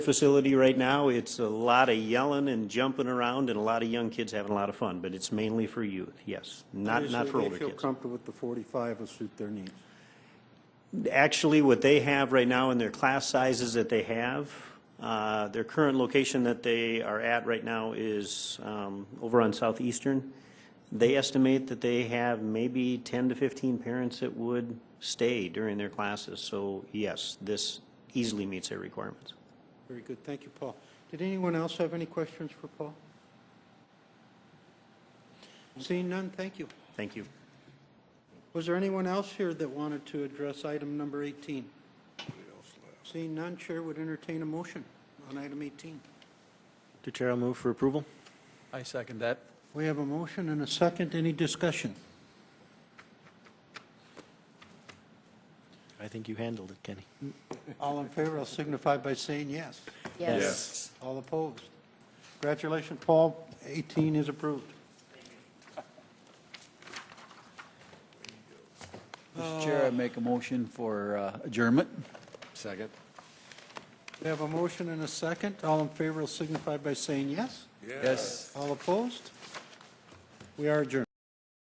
facility right now, it's a lot of yelling and jumping around and a lot of young kids having a lot of fun, but it's mainly for youth, yes, not, not for older They feel kids. comfortable with the 45 will suit their needs. Actually, what they have right now in their class sizes that they have, uh, their current location that they are at right now is um, over on Southeastern. They estimate that they have maybe 10 to 15 parents that would stay during their classes. So yes, this easily meets their requirements. Very good, thank you, Paul. Did anyone else have any questions for Paul? Seeing none, thank you. Thank you. Was there anyone else here that wanted to address item number 18? Seeing none, Chair would entertain a motion on item 18. Mr. Chair, I'll move for approval. I second that. We have a motion and a second, any discussion? I think you handled it, Kenny. All in favor, I'll signify by saying yes. Yes. All opposed? Congratulations, Paul, 18 is approved. Mr. Chair, I make a motion for uh, adjournment. Second. We have a motion and a second. All in favor will signify by saying yes. Yes. All opposed? We are adjourned.